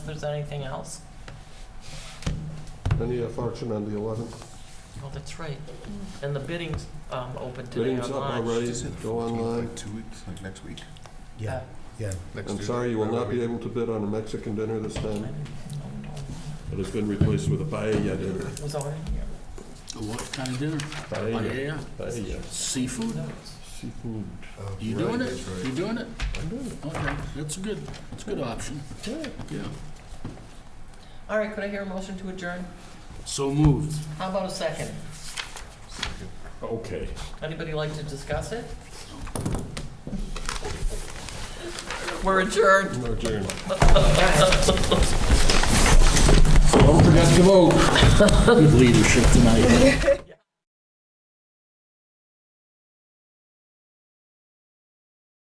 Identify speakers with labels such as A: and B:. A: If there's anything else,
B: Any other function on the 11th?
A: oh, that's right. And the bidding's um, open today
B: Bidding's up
A: online.
B: already, go online.
C: Like two weeks, like next week.
D: Yeah, yeah.
C: Next
B: I'm
C: Tuesday,
B: sorry, you will not be
C: probably.
B: able to bid on a Mexican dinner this
A: I
B: time.
A: didn't- no, no,
B: It has been replaced with a paella dinner.
A: It was already here.
E: What kind of dinner?
B: Paella,
E: Paella?
B: paella,
E: Seafood?
B: seafood.
E: You
C: Right,
E: Oh. doing it?
C: that's right.
E: You doing it?
B: I'm doing
E: Okay, that's a good, that's a good option,
B: it. Yeah.
E: yeah.
A: All right, could I hear a motion to adjourn?
E: So moved.
A: How about a second?
B: Okay.
A: Anybody like to discuss it? We're adjourned.
B: No adjourn. Don't forget to vote.
E: Good leadership tonight.